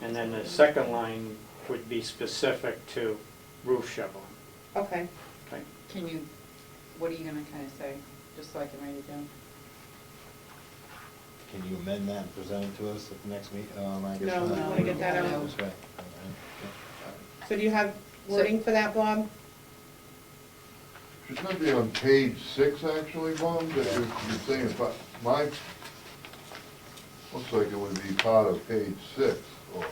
And then the second line would be specific to roof shoveling. Okay. Okay. Can you, what are you gonna kinda say, just so I can write it down? Can you amend that and present it to us at the next meet, um, I guess. No, not. we wanna get that out. That's right. All right. So do you have wording for that, Bob? Shouldn't that be on page six, actually, Bob, that you're you're saying, but my, looks like it would be part of page six, or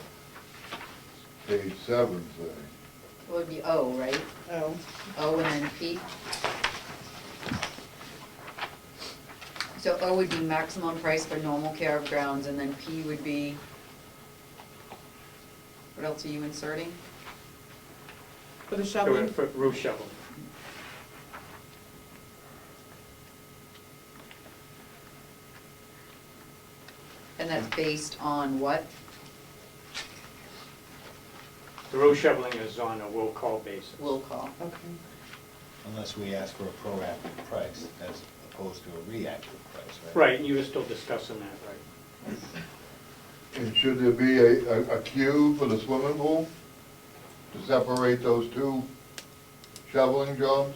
page seven, say. It would be O, right? Oh. O and then P. So O would be maximum price for normal care of grounds, and then P would be, what else are you inserting? For the For shoveling? for roof shoveling. And that's based on what? The roof shoveling is on a will call basis. Will call. Okay. Unless we ask for a proactive price as opposed to a reactive price, right? Right, and you were still discussing that, right? And should there be a, a- a queue for the swimming pool to separate those two shoveling jobs?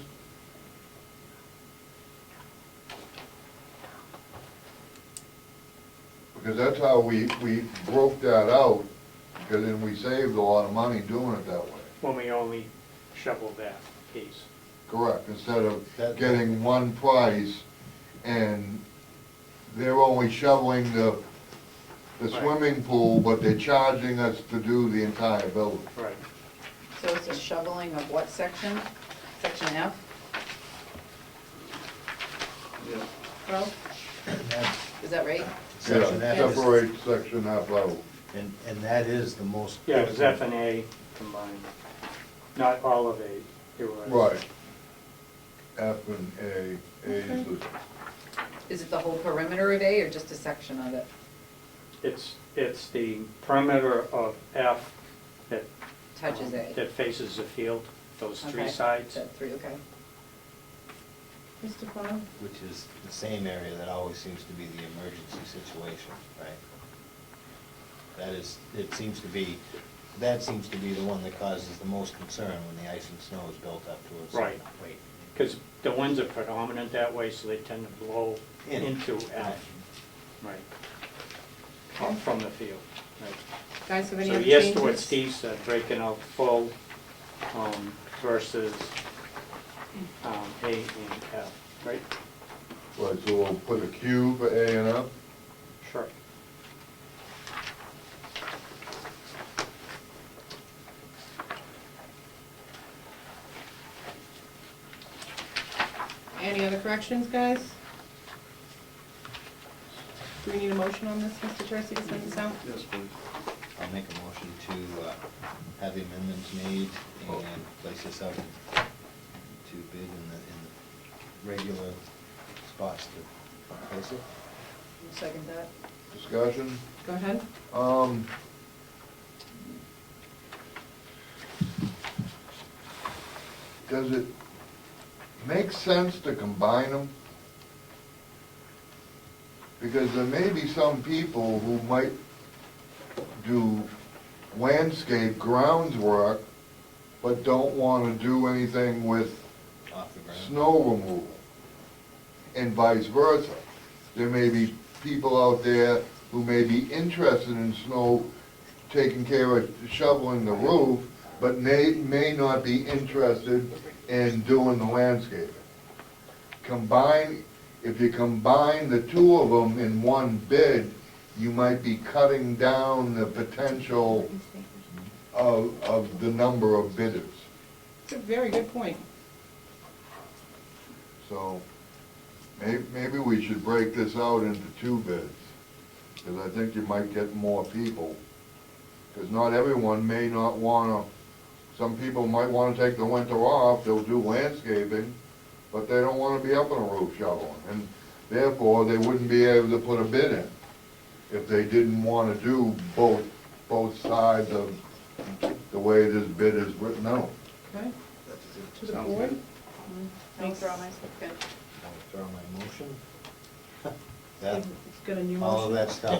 Because that's how we, we broke that out, because then we saved a lot of money doing it that way. When we only shovel that piece. Correct, instead of That- getting one price, and they're only shoveling the, the Right. swimming pool, but they're charging us to do the entire building. Right. So it's a shoveling of what section? Section F? Well, And that- is that right? Section Yeah, F is- Separate section F out. And, and that is the most. Yeah, it was F critical. and A combined, not all of A. There was- Right. F and A, A is the, Is it the whole perimeter of A or just a section of it? It's, it's the perimeter of F that. Touches A. That faces the field, those three Okay. sides. So Three, okay. Mr. Bob? Which is the same area that always seems to be the emergency situation, right? That is, it seems to be, that seems to be the one that causes the most concern when the ice and snow is built up to a certain Right. weight. Because the winds are predominant that way, so they tend to blow In. into Right. F. Right. Come from the field, right. Guys, have any So other yes changes? to what Steve said, breaking out full um, versus um, A and F, right? right, so we'll put a Q for A and F, Sure. Any other corrections, guys? Do we need a motion on this, Mr. Tercey, to send this out? Yes, please. I'll make a motion to uh, have the amendments made and place this out to bid in the, in the regular spots to place it. You Second that? discussion. Go ahead. Um. Does it make sense to combine them? Because there may be some people who might do landscape grounds work, but don't wanna do anything with Off the ground. snow removal, and vice versa. There may be people out there who may be interested in snow, taking care of shoveling the roof, but may, may not be interested in doing the landscaping. Combine, if you combine the two of them in one bid, you might be cutting down the potential of, of the number of bidders, It's a very good point. so. May, maybe we should break this out into two bids, because I think you might get more people. Because not everyone may not wanna, some people might wanna take the winter off, they'll do landscaping, but they don't wanna be up on a roof shoveling, and therefore, they wouldn't be able to put a bid in if they didn't wanna do both, both sides of the way this bid is written out. Okay, to the Sounds board. good. I'll withdraw my second. I'll withdraw my motion. That, Let's get a new motion. all of that stuff